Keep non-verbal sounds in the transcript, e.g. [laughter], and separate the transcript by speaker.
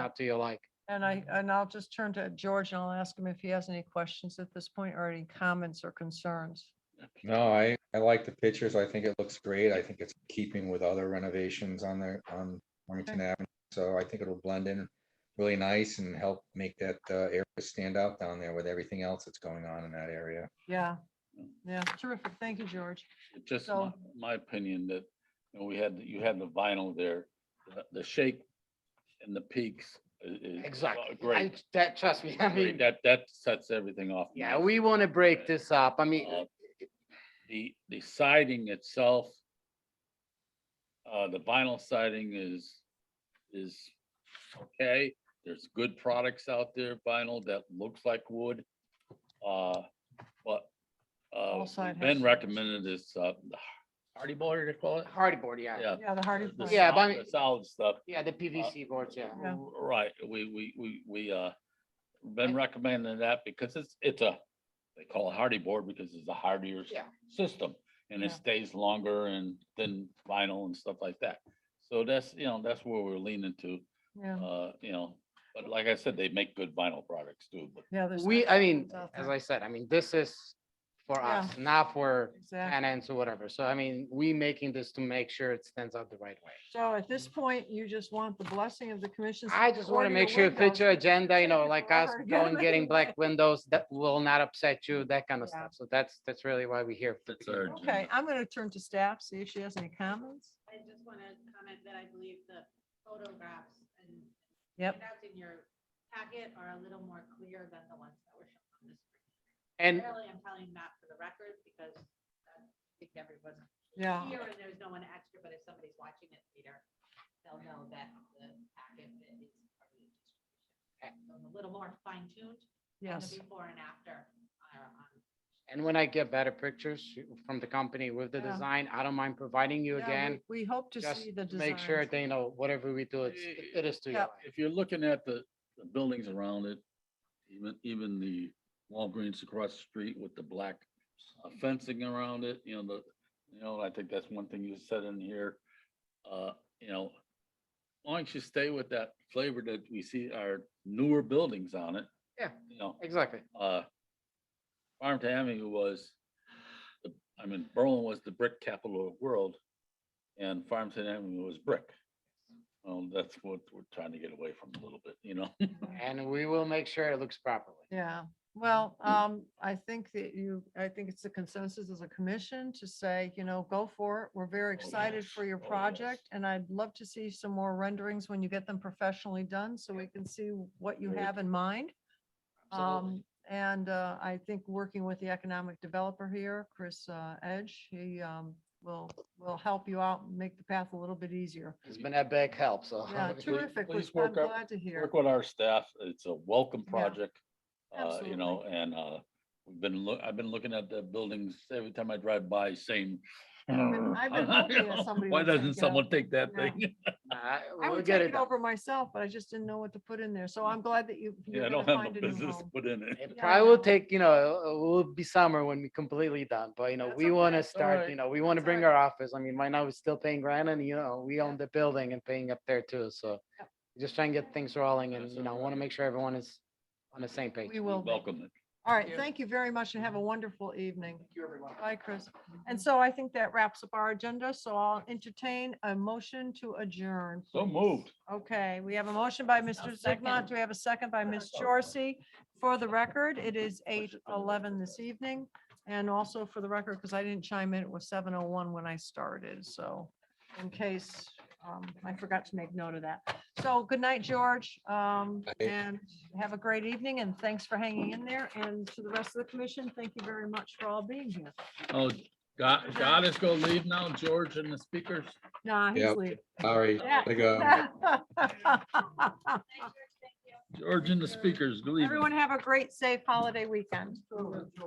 Speaker 1: out to you like.
Speaker 2: And I, and I'll just turn to George and I'll ask him if he has any questions at this point or any comments or concerns.
Speaker 3: No, I, I like the pictures. I think it looks great. I think it's keeping with other renovations on there on Farmington Avenue. So I think it'll blend in really nice and help make that uh, area stand out down there with everything else that's going on in that area.
Speaker 2: Yeah, yeah, terrific. Thank you, George.
Speaker 4: just
Speaker 2: So-
Speaker 4: my, my opinion that, you know, we had, you had the vinyl there, the- the shape and the peaks i- is.
Speaker 1: Exactly.
Speaker 4: uh,
Speaker 1: I-
Speaker 4: Great,
Speaker 1: That, trust me, [laughs] I
Speaker 4: great.
Speaker 1: mean,
Speaker 4: That, that sets everything off.
Speaker 1: yeah,
Speaker 4: nice.
Speaker 1: we want to break this up. I mean,
Speaker 4: Uh, The, the siding itself, uh, the vinyl siding is, is okay. There's good products out there, vinyl that looks like wood. Uh, but, uh,
Speaker 2: side
Speaker 4: Ben
Speaker 2: has-
Speaker 4: recommended this, uh, hardy board, they call it?
Speaker 1: hardy board, yeah.
Speaker 4: Yeah. Uh,
Speaker 2: Yeah, the Hardy.
Speaker 4: the
Speaker 2: Plank.
Speaker 1: Uh, Yeah, but I
Speaker 4: solid-
Speaker 1: mean-
Speaker 4: the Solid stuff.
Speaker 1: Yeah, the PVC boards, yeah.
Speaker 2: Yeah.
Speaker 4: Right, we, we, we, we, uh, been recommending that because it's, it's a, they call it hardy board because it's a hardier s-
Speaker 1: Yeah.
Speaker 4: system. And it
Speaker 2: Yeah.
Speaker 4: stays longer and than vinyl and stuff like that. So that's, you know, that's where we're leaning to,
Speaker 2: Yeah,
Speaker 4: uh, you know, but like I said, they make good vinyl products too, but
Speaker 2: yeah, there's.
Speaker 1: We, I mean,
Speaker 2: It's out
Speaker 1: as
Speaker 2: there.
Speaker 1: I said, I mean, this is for
Speaker 2: Yeah.
Speaker 1: us, not for
Speaker 2: Exactly.
Speaker 1: tenants or whatever. So I mean, we making this to make sure it stands out the right way.
Speaker 2: So at this point, you just want the blessing of the commission.
Speaker 1: I just want to
Speaker 2: order
Speaker 1: make
Speaker 2: your
Speaker 1: sure it fits
Speaker 2: windows.
Speaker 1: your agenda, you know,
Speaker 2: Thank you
Speaker 1: like
Speaker 2: for
Speaker 1: us
Speaker 2: ordering.
Speaker 1: going, getting black windows that will not upset you, that kind of
Speaker 2: Yeah.
Speaker 1: stuff. So that's, that's really why we're here.
Speaker 4: that's our.
Speaker 2: Okay, I'm going to turn to staff, see if she has any comments.
Speaker 5: I just want to comment that I believe the photographs and
Speaker 2: Yep.
Speaker 5: handouts in your packet are a little more clear than the ones that were shown on the screen.
Speaker 1: And
Speaker 5: Apparently, I'm telling that for the record because uh, I think everyone's
Speaker 2: Yeah.
Speaker 5: here and there's no one extra, but if somebody's watching it later, they'll know that the packet is part of the distribution. So I'm A little more fine tuned. on
Speaker 2: Yes.
Speaker 5: The before and after are on
Speaker 1: And when I get better pictures from the company with the
Speaker 2: Yeah.
Speaker 1: design, I don't mind providing you
Speaker 2: Yeah,
Speaker 1: again.
Speaker 2: we- We hope to
Speaker 1: Just
Speaker 2: see the
Speaker 1: to
Speaker 2: design.
Speaker 1: make sure they know whatever we do, it's, it it is to
Speaker 2: Yeah.
Speaker 1: you.
Speaker 4: If you're looking at the, the buildings around it, even, even the Walgreens across the street with the black uh, fencing around it, you know, the, you know, I think that's one thing you said in here. Uh, you know, why don't you stay with that flavor that we see our newer buildings on it?
Speaker 1: Yeah.
Speaker 4: You know,
Speaker 1: Exactly.
Speaker 4: uh, Farmington Avenue was, the I mean, Berlin was the brick capital of the world, and Farmington Avenue was brick. Well, that's what we're trying to get away from a little bit, you know? [laughs]
Speaker 1: And we will make sure it looks properly.
Speaker 2: Yeah,
Speaker 4: Mm.
Speaker 2: well, um, I think that you, I think it's the consensus as a commission to say, you know, go for it. We're very
Speaker 4: Oh,
Speaker 2: excited
Speaker 4: yes.
Speaker 2: for your
Speaker 4: Oh, yes.
Speaker 2: project and I'd love to see some more renderings when you get them professionally done so we can see what you
Speaker 4: Very
Speaker 2: have in mind.
Speaker 4: Absolutely.
Speaker 2: Um, and, uh, I think working with the economic developer here, Chris, uh, Edge, he, um, will, will help you out, and make the path a little bit easier.
Speaker 1: It's been a big help, so. [laughs]
Speaker 2: Yeah,
Speaker 4: please-
Speaker 2: terrific. which
Speaker 4: please
Speaker 2: I'm
Speaker 4: work out-
Speaker 2: glad to hear.
Speaker 4: Work with our staff. It's a welcome
Speaker 2: Yeah,
Speaker 4: project, uh, you know, and, uh, we've been, loo- I've been looking at the buildings every time I drive by saying,
Speaker 2: been- I've
Speaker 4: [laughs]
Speaker 2: been hoping that somebody
Speaker 4: why
Speaker 2: would take it
Speaker 4: doesn't
Speaker 2: out."
Speaker 4: someone take that
Speaker 2: No.
Speaker 4: thing? [laughs]
Speaker 1: I
Speaker 2: I
Speaker 1: will
Speaker 2: would
Speaker 1: get
Speaker 2: take
Speaker 1: it
Speaker 2: it
Speaker 1: done.
Speaker 2: over myself, but I just didn't know what to put in there. So I'm glad that you. you're
Speaker 4: Mm. Yeah, I
Speaker 2: gonna
Speaker 4: don't have no
Speaker 2: find a new
Speaker 4: business to [laughs]
Speaker 2: home.
Speaker 4: put in it.
Speaker 1: It
Speaker 2: Yeah, I
Speaker 1: probably will
Speaker 2: know.
Speaker 1: take, you know, it will be summer when we completely done, but you know,
Speaker 2: That's
Speaker 1: we want to
Speaker 2: okay.
Speaker 1: start,
Speaker 4: Alright.
Speaker 1: you know, we want to
Speaker 2: That's
Speaker 1: bring our
Speaker 2: alright.
Speaker 1: office. I mean, right now we're still paying rent and, you know, we own the building and paying up there too, so.
Speaker 2: Yep.
Speaker 1: Just try and get things rolling and,
Speaker 4: That's
Speaker 1: you know, want to
Speaker 4: alright.
Speaker 1: make sure everyone is on the same page.
Speaker 2: We will. be.
Speaker 4: Welcome it.
Speaker 2: All right,
Speaker 1: you.
Speaker 2: thank you very much and have a
Speaker 4: Mm-hmm.
Speaker 2: wonderful evening.
Speaker 1: Thank you, everyone.
Speaker 2: Bye, Chris. And so I think that wraps up our agenda. So I'll entertain a motion to adjourn.
Speaker 4: So
Speaker 2: please.
Speaker 4: moved.
Speaker 2: Okay, we have a motion by Mr. Zigmont. Do we have a second by Ms. Chorsey? For the record, it is eight eleven this evening. And also for the record, because I didn't chime in, it was seven oh one when I started, so in case, um, I forgot to make note of that. So good night, George, um,
Speaker 3: Night.
Speaker 2: and have a great evening and thanks for hanging in there. And to the rest of the commission, thank you very much for all being here.
Speaker 4: Oh, God, God is gonna leave now, George and the speakers.
Speaker 2: Nah, he's
Speaker 3: Yep.
Speaker 2: leaving.
Speaker 3: Sorry,
Speaker 2: Yeah. [laughs]
Speaker 3: I go.
Speaker 2: uh,
Speaker 4: George and the speakers, leave.
Speaker 2: Everyone have a great, safe holiday weekend.